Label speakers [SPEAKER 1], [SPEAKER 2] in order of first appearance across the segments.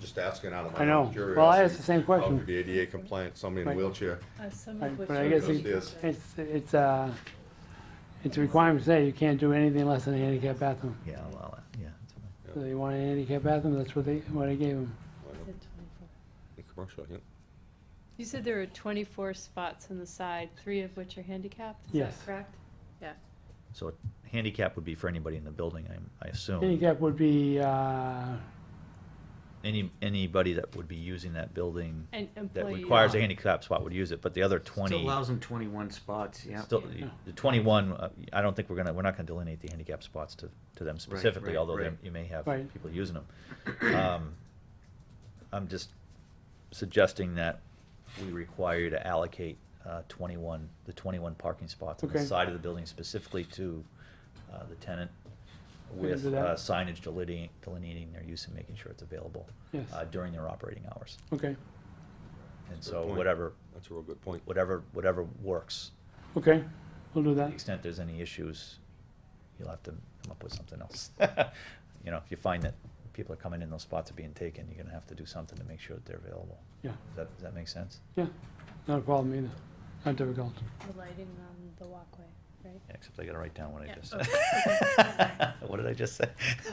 [SPEAKER 1] just asking out of my
[SPEAKER 2] I know.
[SPEAKER 1] own curiosity.
[SPEAKER 2] Well, I asked the same question.
[SPEAKER 1] How could be ADA compliant, somebody in a
[SPEAKER 2] Right.
[SPEAKER 1] wheelchair?
[SPEAKER 3] Uh, some
[SPEAKER 2] Right,
[SPEAKER 3] of which.
[SPEAKER 2] But I
[SPEAKER 3] are
[SPEAKER 2] guess
[SPEAKER 1] it-
[SPEAKER 3] used
[SPEAKER 2] it's,
[SPEAKER 3] as-
[SPEAKER 2] it's, it's, uh, it's a requirement to say you can't do anything less than a handicap bathroom.
[SPEAKER 4] Yeah, well, uh, yeah. that's fine.
[SPEAKER 2] So they want a handicap bathroom, that's what they, what I gave them.
[SPEAKER 1] Why
[SPEAKER 3] is
[SPEAKER 1] not?
[SPEAKER 3] it 24?
[SPEAKER 1] In Commercial, yeah.
[SPEAKER 3] You said there are twenty-four spots on the side, three of which are handicapped, is
[SPEAKER 2] Yes.
[SPEAKER 3] that correct? Yeah,
[SPEAKER 4] So handicap would be for anybody in the building, I, I assume.
[SPEAKER 2] Handicap would be, uh,
[SPEAKER 4] Any, anybody that would be using that building
[SPEAKER 3] and uh,
[SPEAKER 4] that
[SPEAKER 3] employees.
[SPEAKER 4] requires a handicap spot would use it, but the other
[SPEAKER 5] Still
[SPEAKER 4] twenty,
[SPEAKER 5] allows them twenty-one spots, yeah.
[SPEAKER 4] still,
[SPEAKER 3] Yeah.
[SPEAKER 4] the twenty-one, uh, I don't think we're gonna, we're not gonna delineate the handicap spots to, to them specifically,
[SPEAKER 5] right,
[SPEAKER 4] although they-
[SPEAKER 5] right.
[SPEAKER 4] you may have
[SPEAKER 2] Right.
[SPEAKER 4] people using them. Um, I'm just suggesting that we require you to allocate, uh, twenty-one, the twenty-one parking spots on the
[SPEAKER 2] Okay.
[SPEAKER 4] side of the building specifically to, uh, the tenant
[SPEAKER 2] We can
[SPEAKER 4] with
[SPEAKER 2] do that.
[SPEAKER 4] uh, signage delineating, delineating their use and making sure it's available,
[SPEAKER 2] yes,
[SPEAKER 4] uh, during their operating hours.
[SPEAKER 2] okay,
[SPEAKER 4] And
[SPEAKER 1] That's a
[SPEAKER 4] so
[SPEAKER 1] good point.
[SPEAKER 4] whatever,
[SPEAKER 1] That's a real good point.
[SPEAKER 4] whatever, whatever works.
[SPEAKER 2] okay, we'll do
[SPEAKER 4] To the
[SPEAKER 2] that.
[SPEAKER 4] extent there's any issues, you'll have to come up with something else. You know, if you find that people are coming in, those spots are being taken, you're gonna have to do something to make sure that they're available.
[SPEAKER 2] Yeah.
[SPEAKER 4] Does that, does that make sense?
[SPEAKER 2] Yeah, not a problem either, not difficult.
[SPEAKER 3] The lighting on the walkway, right?
[SPEAKER 4] Yeah, Except I gotta write down what I
[SPEAKER 3] Yeah,
[SPEAKER 4] just
[SPEAKER 3] okay.
[SPEAKER 4] said. What did I just say?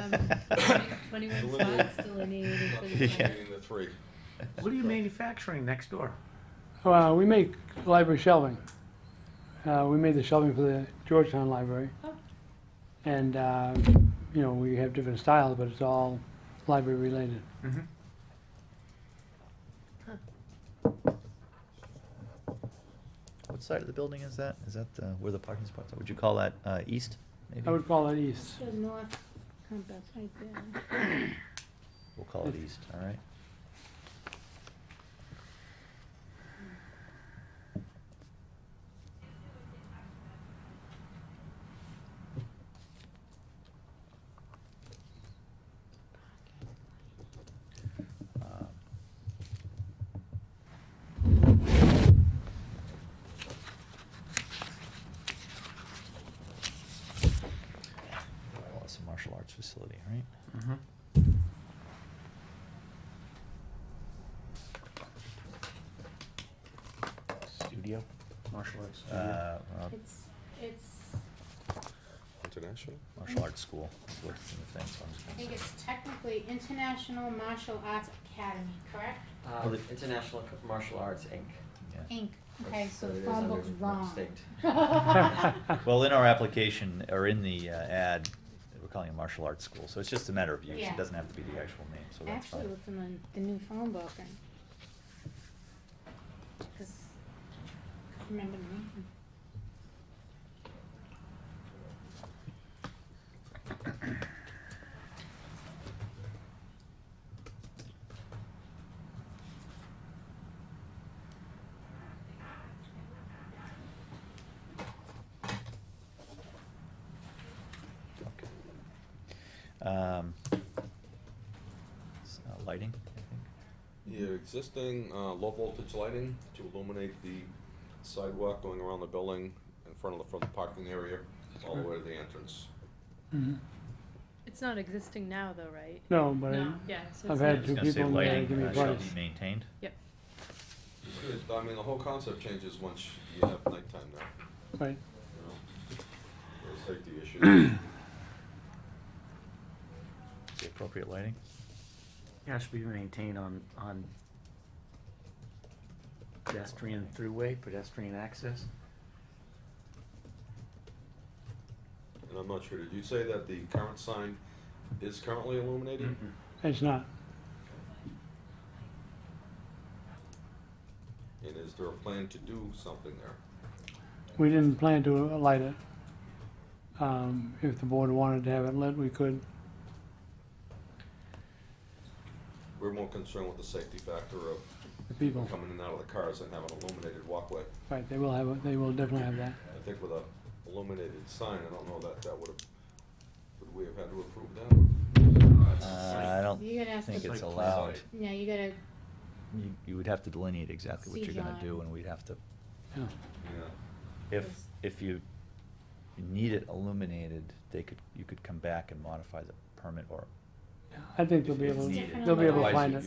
[SPEAKER 3] Um, 20 Twenty-one
[SPEAKER 1] Delineate.
[SPEAKER 3] spots delineated for the.
[SPEAKER 4] Yeah.
[SPEAKER 3] tenant.
[SPEAKER 1] Delineating the three.
[SPEAKER 5] What are you manufacturing next door?
[SPEAKER 2] Uh, we make library shelving. Uh, we made the shelving for the Georgetown Library.
[SPEAKER 3] Oh.
[SPEAKER 2] And, uh, you know, we have different styles, but it's all library related.
[SPEAKER 5] Mhm.
[SPEAKER 4] What side of the building is that? Is that, uh, where the parking spots are? Would you call that, uh, east, maybe?
[SPEAKER 2] I would call it east.
[SPEAKER 6] The north compass right there.
[SPEAKER 4] We'll call it east, all right? Um, Uh, Well, it's a martial arts facility, right?
[SPEAKER 5] Mhm.
[SPEAKER 4] Studio?
[SPEAKER 5] Martial arts.
[SPEAKER 4] Uh, well,
[SPEAKER 6] It's, it's,
[SPEAKER 1] International?
[SPEAKER 4] martial arts school, is what's in the thing, so I'm just
[SPEAKER 6] I
[SPEAKER 4] gonna
[SPEAKER 6] think
[SPEAKER 4] say-
[SPEAKER 6] it's technically International Martial Arts Academy, correct?
[SPEAKER 7] Uh, International Co- Martial Arts Inc.
[SPEAKER 4] yeah.
[SPEAKER 6] Inc. Okay,
[SPEAKER 7] That's-
[SPEAKER 6] so
[SPEAKER 7] so
[SPEAKER 6] the
[SPEAKER 7] it is
[SPEAKER 6] phone
[SPEAKER 7] under
[SPEAKER 6] book's
[SPEAKER 7] my
[SPEAKER 6] wrong.
[SPEAKER 7] state.
[SPEAKER 4] Well, in our application, or in the uh, ad, we're calling it martial arts school, so it's just a matter of use,
[SPEAKER 6] Yeah.
[SPEAKER 4] it doesn't have to be the actual name, so that's
[SPEAKER 6] Actually,
[SPEAKER 4] fine.
[SPEAKER 6] looking on the new phone book and. Cause, remember me?
[SPEAKER 4] Um, s- uh, Lighting, I think.
[SPEAKER 1] Your existing uh, low voltage lighting to illuminate the sidewalk going around the building in front of the, from the parking area all the way to the entrance.
[SPEAKER 2] Mhm.
[SPEAKER 3] It's not existing now though, right?
[SPEAKER 2] No, but I-
[SPEAKER 3] No, yeah, so
[SPEAKER 2] I've
[SPEAKER 3] it's
[SPEAKER 4] I
[SPEAKER 2] had
[SPEAKER 3] not-
[SPEAKER 4] was
[SPEAKER 2] two
[SPEAKER 4] gonna say
[SPEAKER 2] people in there
[SPEAKER 4] lighting,
[SPEAKER 2] give me
[SPEAKER 4] uh, shall
[SPEAKER 2] advice.
[SPEAKER 4] be maintained.
[SPEAKER 3] Yep.
[SPEAKER 1] It's good. I mean, the whole concept changes once you have nighttime now,
[SPEAKER 2] right,
[SPEAKER 1] you know? There's safety issues.
[SPEAKER 4] Is the appropriate lighting?
[SPEAKER 5] Yeah, it should be maintained on, on pedestrian throughway, pedestrian access.
[SPEAKER 1] And I'm not sure, did you say that the current sign is currently illuminated?
[SPEAKER 5] Mhm.
[SPEAKER 2] it's not.
[SPEAKER 1] And is there a plan to do something there?
[SPEAKER 2] We didn't plan to light it. Um, if the board wanted to have it lit, we could.
[SPEAKER 1] We're more concerned with the safety factor of
[SPEAKER 2] The
[SPEAKER 1] people
[SPEAKER 2] people,
[SPEAKER 1] coming in and out of the cars and having illuminated walkway.
[SPEAKER 2] right, they will have, a- they will definitely have that.
[SPEAKER 1] I think with a illuminated sign, I don't know that that would have, would we have had to approve that?
[SPEAKER 4] Uh, I don't
[SPEAKER 6] You gotta ask
[SPEAKER 4] think
[SPEAKER 6] the,
[SPEAKER 4] it's
[SPEAKER 5] Like
[SPEAKER 4] allowed.
[SPEAKER 6] yeah, you gotta,
[SPEAKER 4] You, you would have to delineate exactly what
[SPEAKER 6] See
[SPEAKER 4] you're gonna
[SPEAKER 6] John.
[SPEAKER 4] do, and we'd have to,
[SPEAKER 2] Yeah.
[SPEAKER 1] Yeah,
[SPEAKER 4] if,
[SPEAKER 6] Yes.
[SPEAKER 4] if you need it illuminated, they could, you could come back and modify the permit or
[SPEAKER 2] I think they'll be
[SPEAKER 4] It's
[SPEAKER 2] able,
[SPEAKER 4] needed.
[SPEAKER 2] they'll be able to
[SPEAKER 6] Otherwise,
[SPEAKER 2] find
[SPEAKER 6] you-
[SPEAKER 2] it.